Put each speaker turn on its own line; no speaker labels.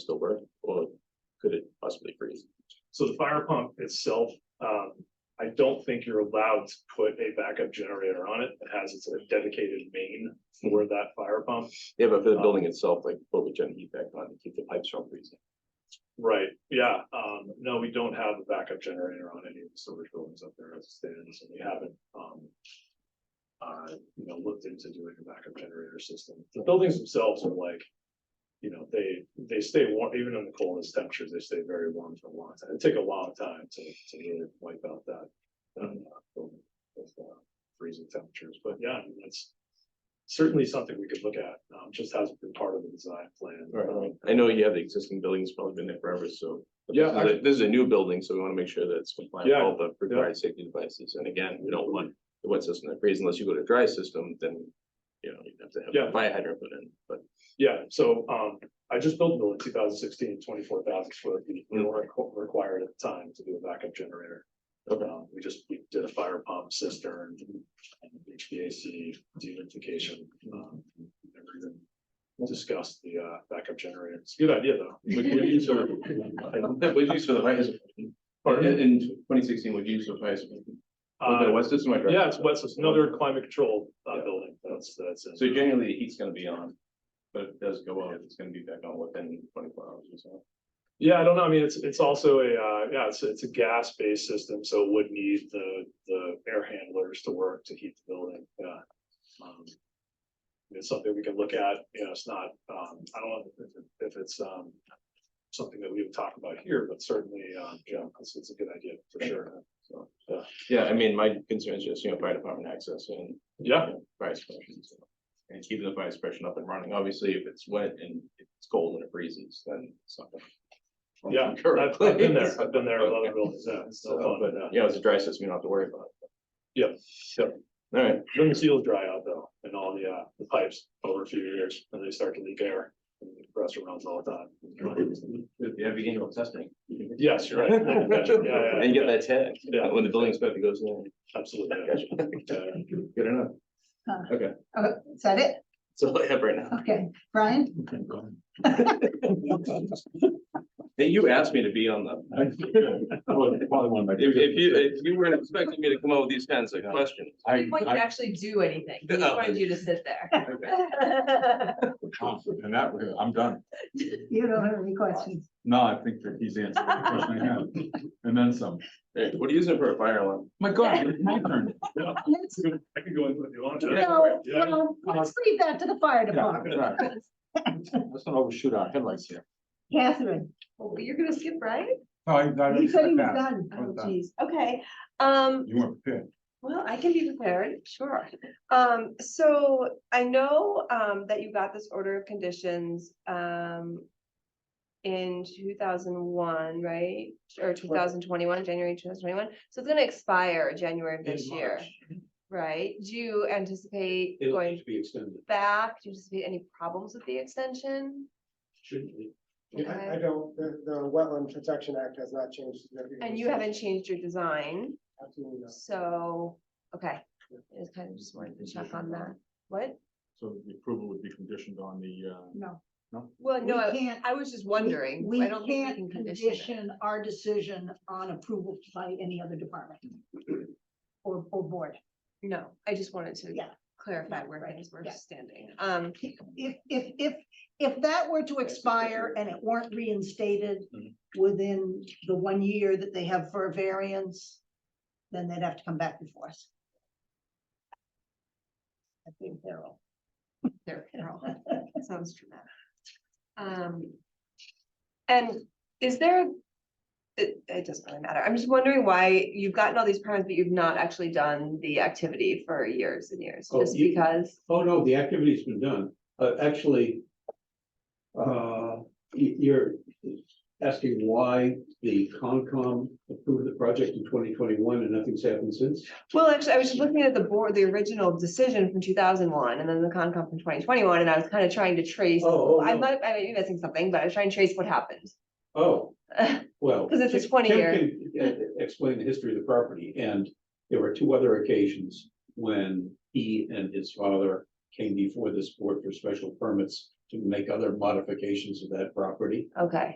still work, or could it possibly freeze?
So the fire pump itself, um, I don't think you're allowed to put a backup generator on it. It has its own dedicated main for that fire pump.
Yeah, but for
Uh,
the building itself, like, what would gen heat back on to keep the pipes from freezing?
Right, yeah, um, no, we don't have a backup generator on any of the storage buildings up there as it stands, and we haven't, um. Uh, you know, looked into doing a backup generator system. The buildings themselves are like. You know, they, they stay warm, even in the coldest temperatures, they stay very warm for a long time. It'd take a long time to, to really wipe out that. um, uh, building with, uh, Freezing temperatures, but yeah, I mean, that's. Certainly something we could look at, um, just hasn't been part of the design plan. Um,
Right, I know you have the existing buildings, probably been there forever, so. but
Yeah,
this is a- This is a new building, so we wanna make sure that it's compliant with
Yeah,
all the required safety devices, and again, we don't want the wet system to freeze unless you go to a dry system, then. You know, you'd have to have
Yeah.
a fire hydrant put in, but
Yeah, so um, I just built a building 2016, 24,000 square feet,
Mm.
we weren't requ- required at the time to do a backup generator.
Okay.
Um, we just, we did a fire pump cistern, and HVAC dehumidification, um, everything. Discussed the uh backup generator, it's a good idea though.
Would you use for, would you use for the fire hydrant? In,
Pardon?
twenty sixteen, would you use for fire hydrant? Was it a
Uh,
wet system or dry?
yeah, it's what's, it's another climate control uh building, that's, that's. it.
So generally, the heat's gonna be on, but if it does go out, it's gonna be back on within twenty-four hours or so.
Yeah, I don't know. I mean, it's, it's also a, uh, yeah, it's, it's a gas-based system, so it would need the, the air handlers to work to heat the building, yeah. Um, It's something we can look at, you know, it's not, um, I don't know if, it- if it's, um, something that we would talk about here, but certainly, um, yeah, it's, it's a good idea for sure. So, yeah.
yeah, I mean, my concern is just, you know, fire department access and
yeah,
fire suppression. so, And keeping the fire suppression up and running, obviously, if it's wet and it's cold and it freezes, then it's not gonna.
yeah, I've I've been there, I've been there in other buildings, yeah, it's no
So,
fun,
but,
yeah.
yeah, it's a dry system, you don't have to worry about it.
Yeah, yeah.
All right,
Then the seals dry out though, and all the, uh, the pipes over a few years, and they start to leak air. and the Compressor runs all the time.
You have annual testing.
Yes, you're right. Yeah, yeah,
and you get
yeah,
that tag,
Yeah.
when the building inspector goes in,
Absolutely.
Gotcha.
yeah. Uh,
good enough,
Oh, is that it?
that's all I have right now.
Okay, Brian?
Hey, you asked me to be on the, if, if you, if you weren't expecting me to come up with these kinds of questions.
I want you to actually do anything. He just
Oh.
wanted you to sit there.
Okay.
And that, way, I'm done.
You don't have any questions?
No, I think that he's answered the question I have. And then some.
Hey, What are you using for a fire alarm?
My God, it's my turn.
Let's-
I can go into it if you want to.
No,
Yeah.
well, let's leave that to the fire
Yeah,
department.
right. Let's not overshoot our headlights here.
Catherine,
Oh, You're gonna skip, right?
No, I- I-
you said he was
yeah,
done.
I was
Oh,
done.
geez.
Okay, um,
You weren't prepared.
well, I can be prepared, sure. Um, so I know, um, that you got this order of conditions, um. In two thousand one, right? Or two thousand twenty-one, January two thousand twenty-one. So it's gonna expire January of this year, right? Do you anticipate going
be extended.
back? Do you anticipate any problems with the extension? Okay.
I, I don't, the, the Wetland Protection Act has not changed. significantly
And you haven't
since-
changed your design,
Absolutely not.
so, okay, I just kind of just wanted to check on that, what?
So the approval would be conditioned on the, uh,
No.
Well, no,
We
I-
can't-
I was just wondering,
We
I don't think we
can't
can condition it.
condition our decision on approval by any other department. Or, or board.
No, I just wanted to
Yeah.
clarify
No,
where
right,
things were
yeah.
standing, um,
If, if, if, if that were to expire and it weren't reinstated
Mhm.
within the one year that they have for a variance, then they'd have to come back before us. I think they're all.
there, Carol, that sounds dramatic. Um, and is there, it, it doesn't really matter, I'm just wondering why you've gotten all these permits, but you've not actually done the activity for years and years,
Oh,
just
you-
because?
Oh, no, the activity's been done. Uh, actually, uh, y- you're asking why the Concom approved the project in twenty twenty-one and nothing's happened since?
Well, actually, I was just looking at the board, the original decision from two thousand one, and then the Concom from twenty twenty-one, and I was kind of trying to trace.
Oh, oh,
I
no.
might, I might be missing something, but I was trying to trace what happened.
Oh, well.
'Cause it's a
Tim-
20
Tim
year.
can, uh, Explain the history of the property, and there were two other occasions when he and his father came before this board for special permits
to make other modifications of that property.
okay.